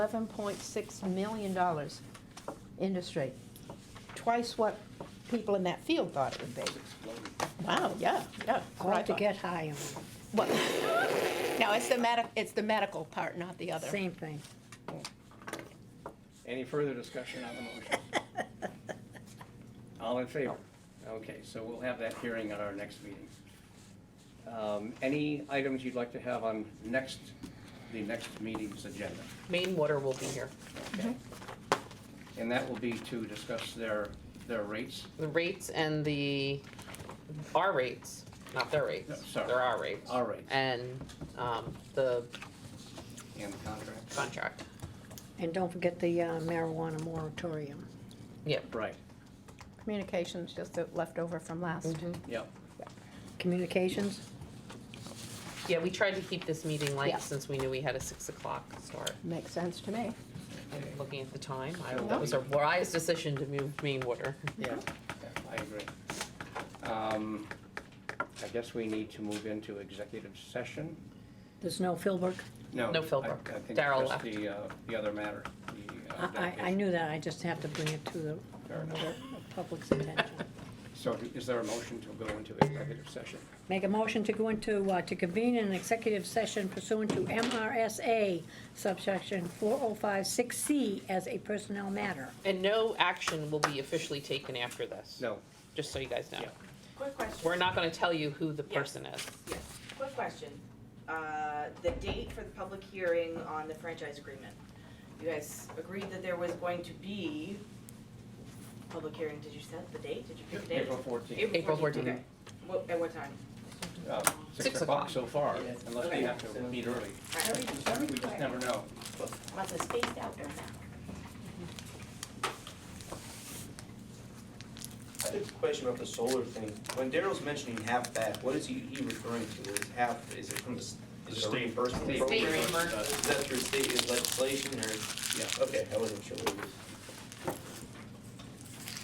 eleven point six million dollars industry. Twice what people in that field thought it would be. Wow, yeah, yeah. that's what I Hard to thought. get high on, What- No, it's the medic, it's the medical part, not the other. same thing. Any further discussion on the motion? All in favor? Okay, so we'll have that hearing at our next meeting. Um, Any items you'd like to have on next, the next meeting's agenda? Main water will be here. Okay. And that will be to discuss their, their rates? The rates and the, our rates, not their No, rates. sorry. They're our rates. Our rates. And, um, the And contracts? contract. And don't forget the uh, marijuana moratorium. Yep. Right, Communications, just the leftover from last. Mm-hmm. yep. Communications, Yeah, we tried to keep this meeting Yeah. light since we knew we had a six o'clock start. Makes sense to me. And Looking at the time, I, So that was a wise decision to move main water. Yeah, I agree. Um, I guess we need to move into executive session? there's no Philbrook. No. No, I- Philbrook. I think Daryl just left. The, uh, the other matter, the. uh, I, I- I dedication. knew that, I just have to bring it to the Fair enough. the public's attention. So is there a motion to go into executive session? Make a motion to go into, uh, to convene an executive session pursuant to MRSA subsection 4056C as a personnel matter. And no action will be officially taken after this. No, Just so you guys know. Yeah. Quick question. We're not gonna tell you who the Yeah. person is. Yes, quick question. Uh, The date for the public hearing on the franchise agreement. You guys agreed that there was going to be public hearing. Did you set the date? Did you pick the date? April fourteenth, April Okay. What- At what time? uh, Six six o'clock o'clock. so far, unless we have to meet early. All right. We just never know. Lots of spaced out there now. I have a question about the solar thing. When Daryl's mentioning half back, what is he he referring to? Is half, is it from the, s- is it a State. reimbursement State program? reimbursement. Is that through state legislation or? Yeah. Okay, I wasn't sure. what it was.